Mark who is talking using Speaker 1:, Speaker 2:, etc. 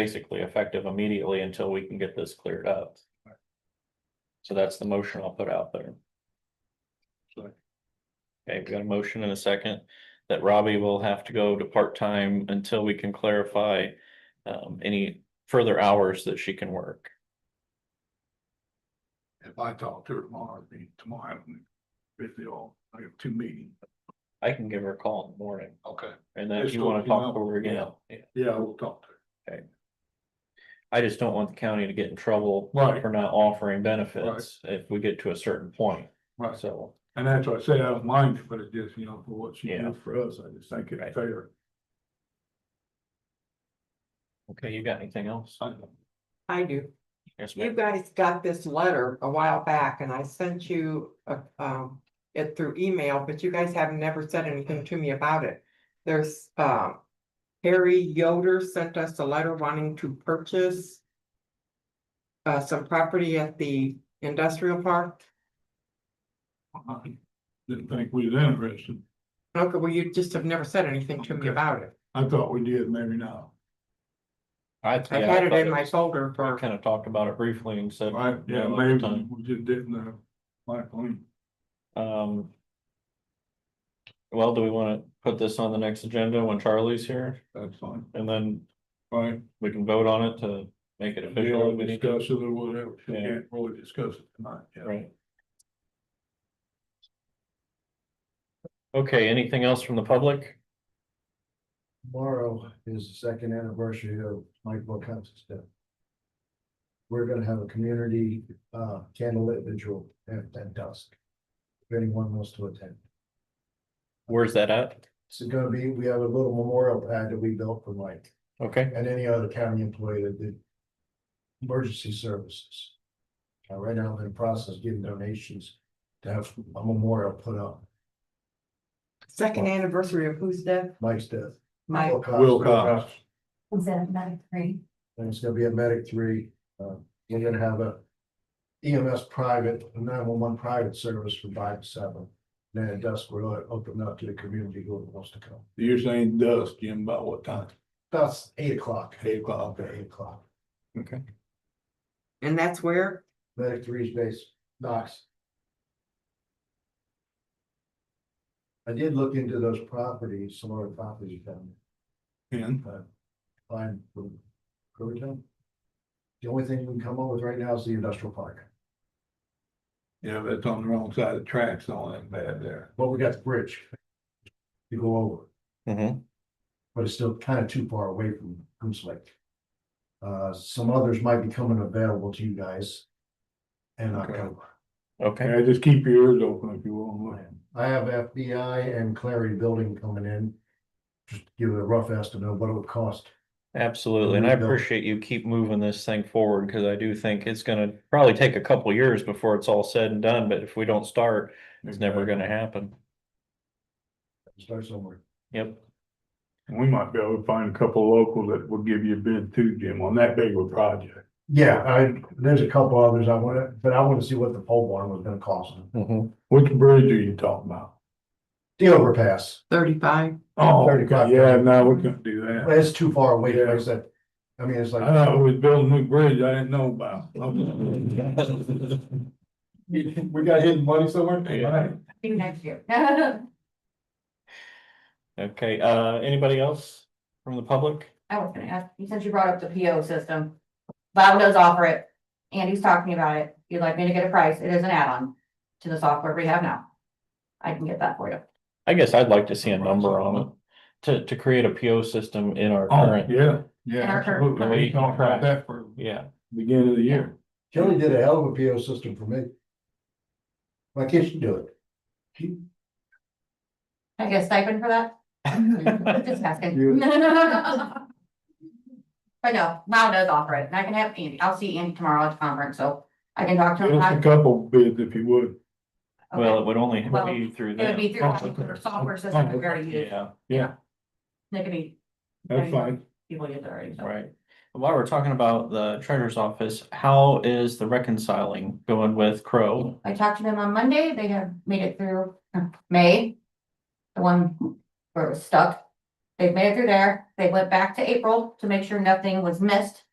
Speaker 1: basically effective immediately until we can get this cleared up. So that's the motion I'll put out there.
Speaker 2: Sure.
Speaker 1: Okay, we got a motion and a second that Robbie will have to go to part-time until we can clarify um any further hours that she can work.
Speaker 2: If I talk to her tomorrow, I mean, tomorrow, if they all, I have two meetings.
Speaker 1: I can give her a call in the morning
Speaker 2: Okay.
Speaker 1: and then if
Speaker 2: Just
Speaker 1: you
Speaker 2: go,
Speaker 1: wanna
Speaker 2: you
Speaker 1: talk
Speaker 2: know,
Speaker 1: over again. yeah.
Speaker 2: Yeah, we'll talk to her.
Speaker 1: I just don't want the county to get in trouble
Speaker 2: Right.
Speaker 1: for not offering benefits if we get to a certain point,
Speaker 2: Right,
Speaker 1: so.
Speaker 2: and that's why I say I don't mind it, but it's just, you know, for what she
Speaker 1: Yeah.
Speaker 2: did for us, I just think
Speaker 1: Right.
Speaker 2: it's fair.
Speaker 1: Okay, you got anything else?
Speaker 2: I don't-
Speaker 3: I do.
Speaker 1: Yes,
Speaker 3: You
Speaker 1: ma'am.
Speaker 3: guys got this letter a while back and I sent you a, um, it through email, but you guys have never said anything to me about it. There's, um, Harry Yoder sent us a letter wanting to purchase uh, some property at the industrial park.
Speaker 2: I Didn't think we was interested.
Speaker 3: Okay, well, you just have never said anything to me
Speaker 2: Okay.
Speaker 3: about it.
Speaker 2: I thought we did, maybe not.
Speaker 1: I
Speaker 3: I
Speaker 1: yeah, I
Speaker 3: had it
Speaker 1: thought
Speaker 3: in my
Speaker 1: was-
Speaker 3: folder
Speaker 1: I
Speaker 3: for,
Speaker 1: Kind of talked about it briefly and said,
Speaker 2: Right,
Speaker 1: Yeah,
Speaker 2: yeah,
Speaker 1: at the
Speaker 2: maybe
Speaker 1: time.
Speaker 2: we just didn't have like, we
Speaker 1: um. Well, do we want to put this on the next agenda when Charlie's here
Speaker 2: that's fine,
Speaker 1: and then
Speaker 2: right?
Speaker 1: we can vote on it to make it official?
Speaker 2: We'll
Speaker 1: if we need to?
Speaker 2: discuss it or whatever, we
Speaker 1: Yeah.
Speaker 2: can't really discuss it tonight, yeah.
Speaker 1: Right. Okay, anything else from the public?
Speaker 4: Tomorrow is the second anniversary of Mike Wilcox's death. We're gonna have a community uh candlelit vigil at at dusk. If anyone wants to attend,
Speaker 1: Where's that at?
Speaker 4: it's gonna be, we have a little memorial pad that we built for Mike
Speaker 1: Okay,
Speaker 4: and any other county employee that did. Emergency services. Uh, right now, I'm in the process of getting donations to have a memorial put up,
Speaker 3: second anniversary of whose death?
Speaker 4: Mike's death.
Speaker 3: My,
Speaker 4: Wilcox.
Speaker 2: Wilcox.
Speaker 5: Was that about three?
Speaker 4: And it's gonna be at Medic Three, uh, we're gonna have a EMS private, nine one one private service from five to seven. Then at dusk, we're gonna open up to the community who wants to come.
Speaker 2: You're saying dusk, Jim, about what time?
Speaker 4: That's eight o'clock,
Speaker 2: Eight o'clock,
Speaker 4: okay,
Speaker 2: okay.
Speaker 4: eight o'clock.
Speaker 1: okay.
Speaker 3: and that's where?
Speaker 4: Medic Three's base, Knox. I did look into those properties, some other properties you found,
Speaker 2: And
Speaker 4: uh, find from Germantown. The only thing we can come up with right now is the industrial park,
Speaker 2: Yeah, but it's on the wrong side of the tracks, all that bad there.
Speaker 4: but we got the bridge. To go over.
Speaker 1: Mhm.
Speaker 4: but it's still kind of too far away from Goose Lake. Uh, some others might be coming available to you guys. In
Speaker 2: Okay.
Speaker 4: October.
Speaker 1: Okay,
Speaker 2: Yeah, just keep your ears open if you want.
Speaker 4: I have FBI and Clary Building coming in. Just to give a rough estimate of what it would cost.
Speaker 1: absolutely. And I appreciate you keep moving this thing forward because I do think it's gonna probably take a couple years before it's all said and done, but if we don't start, it's never gonna happen.
Speaker 4: Start somewhere.
Speaker 1: Yep.
Speaker 2: We might be able to find a couple local that will give you a bid too, Jim, on that big of a project.
Speaker 4: Yeah, I, there's a couple others I want to, but I want to see what the pole barn was gonna cost.
Speaker 1: Mhm.
Speaker 2: Which bridge are you talking about?
Speaker 4: The overpass,
Speaker 3: Thirty-five?
Speaker 2: Oh,
Speaker 4: Thirty o'clock.
Speaker 2: yeah, no, we couldn't do that.
Speaker 4: but it's too far away, like I said. I mean, it's
Speaker 2: I
Speaker 4: like,
Speaker 2: thought we was building a new bridge I didn't know about. Okay.
Speaker 4: we got hidden money somewhere?
Speaker 2: Yeah.
Speaker 5: Maybe next year.
Speaker 1: Okay, uh, anybody else from the public?
Speaker 5: I was gonna ask, you since you brought up the PO system, Bob does offer it. Andy's talking about it. You'd like me to get a price. It is an add-on to the software we have now. I can get that for you.
Speaker 1: I guess I'd like to see a number on it to to create a PO system in our
Speaker 2: Oh,
Speaker 1: current,
Speaker 2: yeah, yeah,
Speaker 5: Our current
Speaker 2: absolutely. We
Speaker 1: rate.
Speaker 2: talked about that for
Speaker 1: yeah.
Speaker 2: beginning of the year.
Speaker 4: Kelly did a hell of a PO system for me. My kids should do it.
Speaker 5: Can I get a stipend for that? Just
Speaker 4: You-
Speaker 5: asking. But no, Bob does offer it and I can have Andy. I'll see Andy tomorrow at the conference, so I can talk to
Speaker 2: Give
Speaker 5: him.
Speaker 2: us a
Speaker 5: I-
Speaker 2: couple bids if you would.
Speaker 1: Well, it
Speaker 5: okay.
Speaker 1: would only
Speaker 5: Well,
Speaker 1: be through
Speaker 5: It would
Speaker 1: them.
Speaker 5: be through our software system we already use.
Speaker 1: Yeah,
Speaker 2: Yeah,
Speaker 5: They could be
Speaker 2: that's fine.
Speaker 5: people use it already. so.
Speaker 1: right. While we're talking about the treasurer's office, how is the reconciling going with Crow?
Speaker 5: I talked to them on Monday, they have made it through uh, May. The one where it was stuck, They've made it through there. They went back to April to make sure nothing was missed